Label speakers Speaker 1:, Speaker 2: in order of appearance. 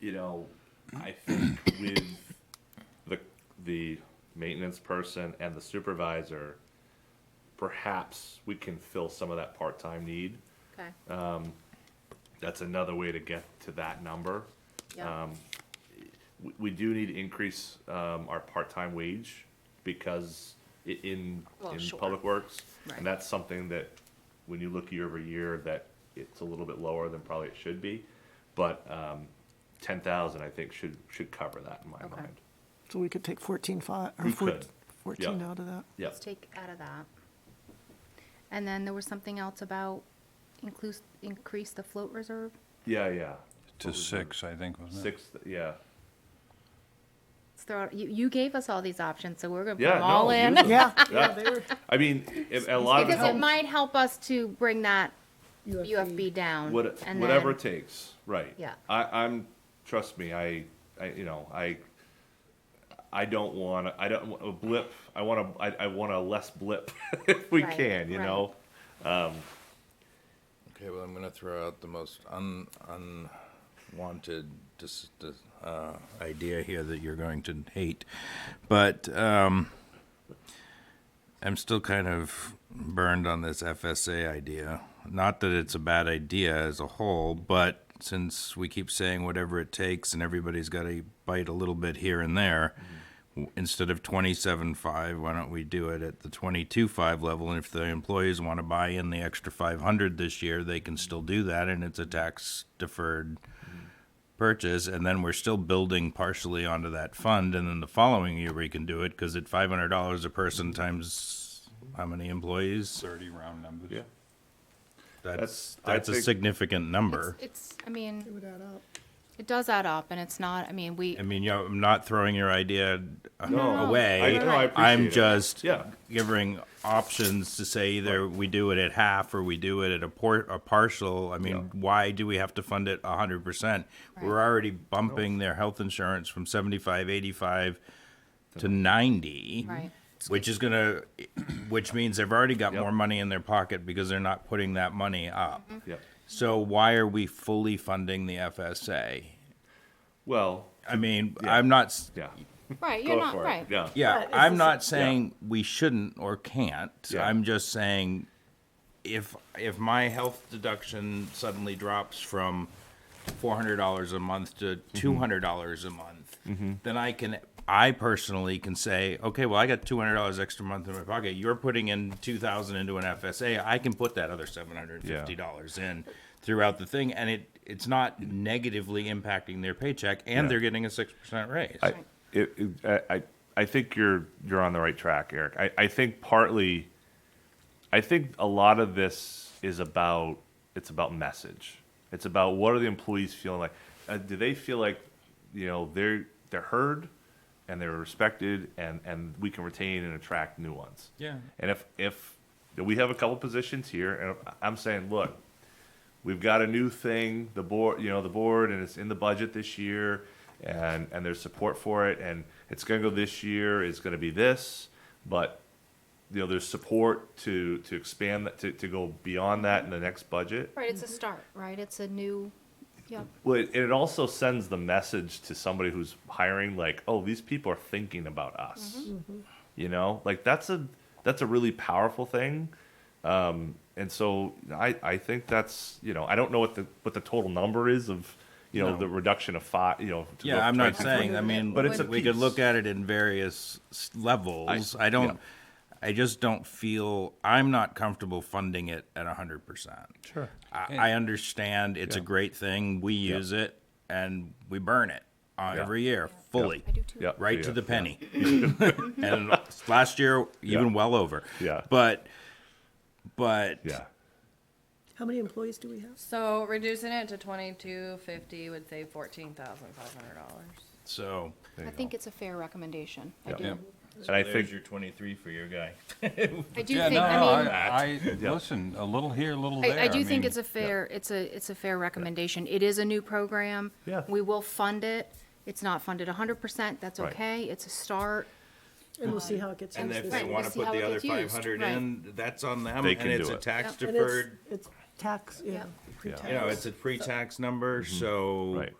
Speaker 1: you know, I think with the the maintenance person and the supervisor, perhaps we can fill some of that part time need.
Speaker 2: Okay,
Speaker 1: Uh, That's another way to get to that number. um,
Speaker 2: yeah,
Speaker 1: We, we do need to increase um, our part time wage because i- in
Speaker 2: Well,
Speaker 1: in
Speaker 2: sure.
Speaker 1: public works,
Speaker 2: Right.
Speaker 1: and that's something that when you look year over year, that it's a little bit lower than probably it should be, but. Um, Ten thousand, I think, should should cover that in my
Speaker 2: Okay.
Speaker 1: mind.
Speaker 3: So we could take fourteen five, or
Speaker 1: We
Speaker 3: four-
Speaker 1: could,
Speaker 3: fourteen
Speaker 1: yeah.
Speaker 3: out of that.
Speaker 1: Yeah.
Speaker 2: let's take out of that. And then there was something else about include, increase the float reserve?
Speaker 1: Yeah, yeah.
Speaker 4: to six, I think, wasn't it?
Speaker 1: Six, yeah.
Speaker 2: Let's throw, out- you, you gave us all these options, so we're gonna put
Speaker 1: Yeah,
Speaker 2: them all
Speaker 1: no,
Speaker 2: in.
Speaker 1: use 'em.
Speaker 3: Yeah,
Speaker 1: Yeah.
Speaker 3: yeah, they were,
Speaker 1: I mean, if- a lot of it
Speaker 2: Because it
Speaker 1: helps.
Speaker 2: might help us to bring that UFB down.
Speaker 1: What,
Speaker 2: and
Speaker 1: whatever it
Speaker 2: then-
Speaker 1: takes, right.
Speaker 2: Yeah.
Speaker 1: I, I'm, trust me, I, I, you know, I, I don't want, I don't, want a blip, I want a, I, I want a less blip if we
Speaker 2: Right,
Speaker 1: can, you
Speaker 2: right.
Speaker 1: know?
Speaker 5: Okay, well, I'm gonna throw out the most un, unwanted, dis dis- uh, idea here that you're going to hate. But, um, I'm still kind of burned on this FSA idea. Not that it's a bad idea as a whole, but since we keep saying whatever it takes and everybody's got to bite a little bit here and there, w instead of 27.5, why don't we do it at the 22.5 level? And if the employees want to buy in the extra 500 this year, they can still do that, and it's a tax deferred purchase, and then we're still building partially onto that fund, and then the following year we can do it, because at five hundred dollars a person times how many employees?
Speaker 4: Thirty round numbers.
Speaker 1: Yeah.
Speaker 5: That's,
Speaker 1: That's- I
Speaker 5: that's a
Speaker 1: think-
Speaker 5: significant number.
Speaker 2: It's, I mean,
Speaker 3: it would add up.
Speaker 2: it does add up, and it's not, I mean, we,
Speaker 5: I mean, you know, I'm not throwing your idea uh,
Speaker 1: No. I,
Speaker 5: away.
Speaker 1: no, I appreciate it.
Speaker 5: I'm just
Speaker 1: Yeah.
Speaker 5: giving options to say either we do it at half or we do it at a por- a partial. I mean, why do we have to fund it a hundred percent? We're
Speaker 2: Right.
Speaker 5: already bumping their health insurance from seventy-five, eighty-five to ninety.
Speaker 2: Right.
Speaker 5: Which is gonna, which means they've already got
Speaker 1: Yep.
Speaker 5: more money in their pocket because they're not putting that money up.
Speaker 2: Mm-hmm.
Speaker 1: Yeah.
Speaker 5: So why are we fully funding the FSA?
Speaker 1: Well,
Speaker 5: I mean, I'm not, s-
Speaker 1: yeah.
Speaker 2: right,
Speaker 1: Go
Speaker 2: you're not,
Speaker 1: for it.
Speaker 2: right.
Speaker 1: Yeah.
Speaker 5: Yeah, I'm not saying we shouldn't or can't.
Speaker 1: Yeah.
Speaker 5: I'm just saying if if my health deduction suddenly drops from four hundred dollars a month to
Speaker 1: Mm-hmm.
Speaker 5: two hundred dollars a month, then I can I personally can say, okay, well I got two hundred dollars extra a month in my pocket. You're putting in two thousand into an FSA. I can put that other seven hundred and fifty dollars in throughout the thing and it it's not negatively impacting their paycheck and
Speaker 1: Yeah.
Speaker 5: they're getting a six percent raise.
Speaker 1: I, it, it, I, I- I think you're you're on the right track, Eric. I, I think partly, I think a lot of this is about it's about message. It's about what are the employees feeling like? Uh, do they feel like you know they're they're heard and they're respected and and we can retain and attract new ones?
Speaker 5: Yeah.
Speaker 1: And if if we have a couple positions here, and I'm saying, look, we've got a new thing, the board, you know, the board, and it's in the budget this year, and, and there's support for it, and it's gonna go this year, it's gonna be this, but, you know, there's support to, to expand, that to, to go beyond that in the next budget.
Speaker 2: Right, it's a start, right? It's a new, yeah,
Speaker 1: Well, it, it also sends the message to somebody who's hiring, like, oh, these people are thinking about us. Mm-hmm. You know, like that's a that's a really powerful thing. Um, and so I I think that's you know I don't know what the what the total number is of you know
Speaker 5: No.
Speaker 1: the reduction of five you know. To go
Speaker 5: Yeah, I'm not
Speaker 1: 22.
Speaker 5: saying, I mean,
Speaker 1: But it's a
Speaker 5: we could
Speaker 1: piece.
Speaker 5: look at it in various s- levels. I don't, I just don't feel, I'm not comfortable funding it at hundred percent. Sure. I, I understand it's a great thing, we use it and we burn it uh,
Speaker 1: Yeah.
Speaker 5: every year, fully.
Speaker 2: I do too.
Speaker 1: Yeah,
Speaker 5: Right to
Speaker 1: yeah.
Speaker 5: the penny. And last year, even well over.
Speaker 1: Yeah.
Speaker 5: But, but.
Speaker 1: Yeah,
Speaker 3: How many employees do we have?
Speaker 6: So reducing it to twenty-two fifty would save fourteen thousand five hundred dollars.
Speaker 5: So,
Speaker 2: I think it's a fair recommendation. I
Speaker 1: Yeah.
Speaker 2: do,
Speaker 1: and I think
Speaker 5: twenty-three for your guy.
Speaker 2: I do
Speaker 4: Yeah,
Speaker 2: think,
Speaker 4: no,
Speaker 2: I mean.
Speaker 4: I, I, listen, a little here, a little there.
Speaker 2: I, I do think
Speaker 4: mean,
Speaker 2: it's a fair, it's a, it's a fair recommendation. It is a new program.
Speaker 1: Yeah.
Speaker 2: We will fund it. It's not funded hundred percent. That's
Speaker 1: Right.
Speaker 2: okay. It's a start.
Speaker 3: And we'll see how it gets
Speaker 5: And
Speaker 3: used
Speaker 5: if
Speaker 3: this
Speaker 5: they
Speaker 2: we'll
Speaker 3: year.
Speaker 5: want to
Speaker 2: see
Speaker 5: put
Speaker 2: how it
Speaker 5: the other
Speaker 2: gets used,
Speaker 5: five hundred
Speaker 2: right.
Speaker 5: in, that's on them,
Speaker 1: They
Speaker 5: and
Speaker 1: can
Speaker 5: it's
Speaker 1: do
Speaker 5: a
Speaker 1: it.
Speaker 5: tax
Speaker 3: And it's-
Speaker 5: deferred,
Speaker 3: It's tax, yeah.
Speaker 2: Yeah.
Speaker 5: you know,
Speaker 3: pre-tax.
Speaker 5: it's a pre-tax number, so.
Speaker 1: Right.